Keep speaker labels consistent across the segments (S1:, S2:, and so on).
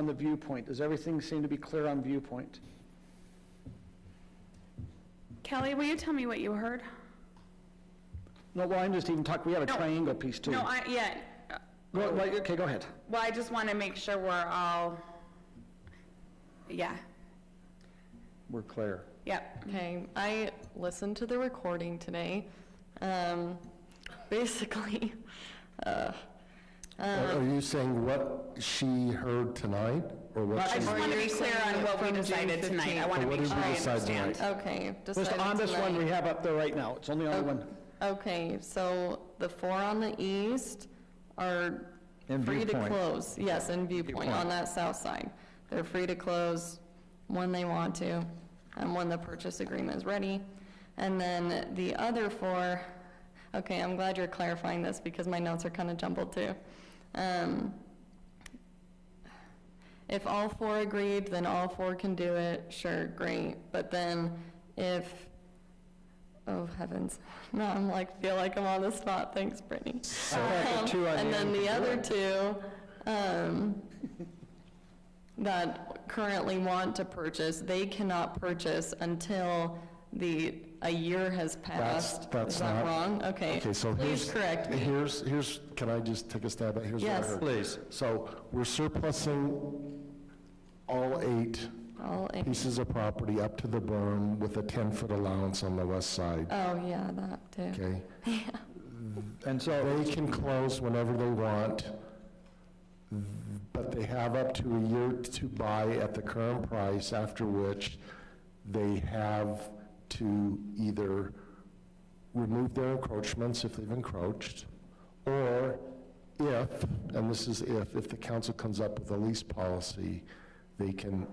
S1: on the viewpoint? Does everything seem to be clear on viewpoint?
S2: Kelly, will you tell me what you heard?
S1: No, well, I'm just even talking, we have a
S2: No.
S1: triangle piece too.
S2: No, I, yeah, uh,
S1: Go- right, Okay, go ahead.
S2: well, I just want to make sure we're all, yeah,
S1: We're clear.
S2: yep.
S3: Okay, I listened to the recording today. Um, basically, uh,
S4: Are are
S3: um,
S4: you saying what she heard tonight, or what
S2: I
S4: she...
S2: just
S3: Or
S2: want to
S3: you're
S2: be clear
S3: saying
S2: on
S3: it
S2: what we
S3: from June
S2: decided tonight. I want to
S4: So what
S2: make
S4: did
S2: sure
S4: we
S2: I
S4: decide tonight?
S2: understand.
S3: okay,
S1: Just
S3: decided
S1: on this one we
S3: tonight.
S1: have up there right now. It's only on
S3: Oh,
S1: one.
S3: Okay, so the four on the east are
S5: And
S3: free to
S5: viewpoint.
S3: close, yes, and viewpoint on that south side. They're free to close when they want to, and when the purchase agreement is ready. And then the other four, okay, I'm glad you're clarifying this because my notes are kind of jumbled too. Um, if all four agreed, then all four can do it, sure, great. But then if, oh heavens, now I'm like, feel like I'm on the spot, thanks Brittany. Um,
S5: two on
S3: And
S5: the
S3: then
S5: end.
S3: the other two, um, that currently want to purchase, they cannot purchase until the, a year has
S4: That's-
S3: passed.
S4: that's
S3: Is that
S4: not-
S3: wrong? Okay,
S4: Okay, so here's...
S3: please correct me.
S4: Here's, here's, can I just take a stab at, here's what I
S3: Yes.
S4: heard?
S5: Please.
S4: So we're surplusing all eight
S3: All in-
S4: pieces of property up to the berm with a 10-foot allowance on the west side,
S3: Oh, yeah, that too.
S4: okay?
S5: And so,
S4: They can close whenever they want, but they have up to a year to buy at the current price, after which they have to either remove their encroachments if they've encroached, or if, and this is if, if the council comes up with a lease policy, they can,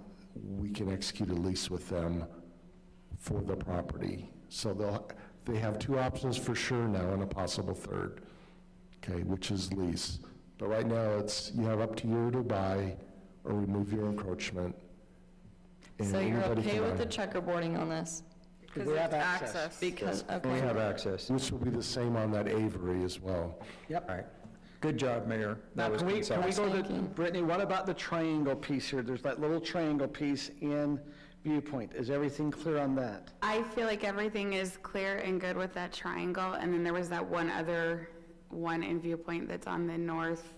S4: we can execute a lease with them for the property. So they'll, they have two options for sure now and a possible third, okay, which is lease. But right now, it's, you have up to a year to buy or remove your encroachment. and
S3: So you're
S4: anybody
S3: okay
S4: can
S3: with
S4: buy.
S3: the checkerboarding on this?
S1: Because we have access.
S3: Because,
S5: we
S3: okay,
S5: have access.
S4: Which will be the same on that Avery as well.
S5: All right. Good job, Mayor.
S1: Now,
S5: That was
S1: can we, can we
S5: concise.
S1: go to,
S3: Thank you.
S1: Brittany, what about the triangle piece here? There's that little triangle piece in viewpoint. Is everything clear on that?
S2: I feel like everything is clear and good with that triangle, and then there was that one other one in viewpoint that's on the north.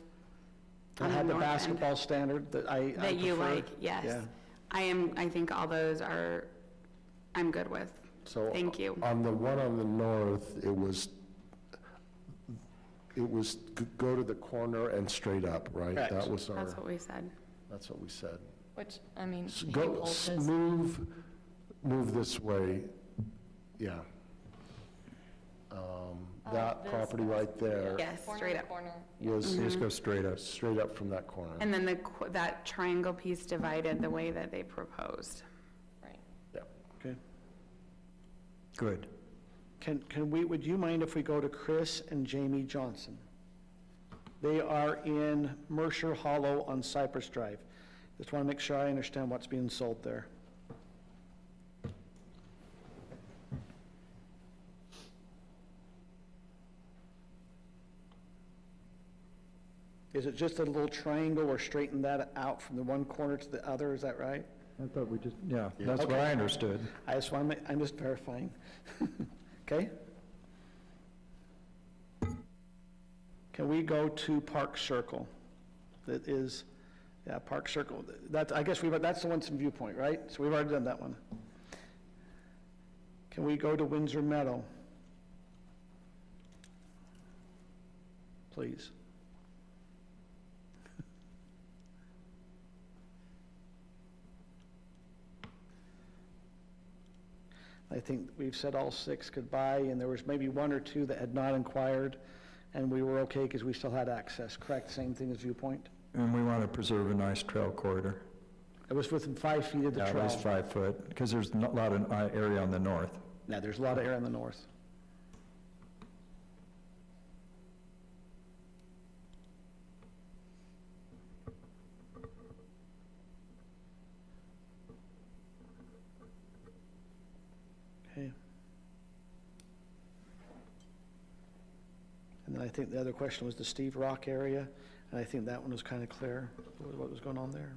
S1: I
S2: on
S1: had the
S2: north end
S1: basketball standard that I I prefer.
S2: That you like, yes.
S1: Yeah.
S2: I am, I think all those are, I'm good with.
S4: So
S2: Thank you.
S4: On the one on the north, it was, it was g- go to the corner and straight up, right?
S1: Correct.
S4: That was our,
S2: That's what we said.
S4: that's what we said.
S3: which, I mean,
S4: S-
S3: he
S4: Go,
S3: pulled
S4: s-
S3: his-
S4: move, move this way, yeah. Um,
S3: Oh,
S4: That
S3: this
S4: property
S3: one.
S4: right there
S2: Yes,
S3: Corner
S2: straight
S3: to
S2: up.
S3: corner.
S4: was
S5: Just go straight up.
S4: straight up from that corner.
S2: And then the, qu- that triangle piece divided the way that they proposed.
S3: Right.
S1: Okay.
S5: Good.
S1: Can, can we, would you mind if we go to Chris and Jamie Johnson? They are in Mercer Hollow on Cypress Drive. Just want to make sure I understand what's being sold there. Is it just a little triangle or straighten that out from the one corner to the other, is that right?
S5: I thought we just, yeah, that's what I understood.
S1: I just want to, I'm just verifying. Okay? Can we go to Park Circle? That is, yeah, Park Circle. That, I guess we, that's the one in viewpoint, right? So we've already done that one. Can we go to Windsor Meadow? Please. I think we've said all six goodbye, and there was maybe one or two that had not inquired, and we were okay because we still had access, correct? Same thing as viewpoint?
S5: And we want to preserve a nice trail corridor.
S1: It was within five feet of the
S5: Yeah,
S1: trail.
S5: At least five foot, because there's not a lot of uh, area on the north.
S1: Now, there's a lot of air in the north. Okay. And then I think the other question was the Steve Rock area, and I think that one was kind of clear, what was going on there.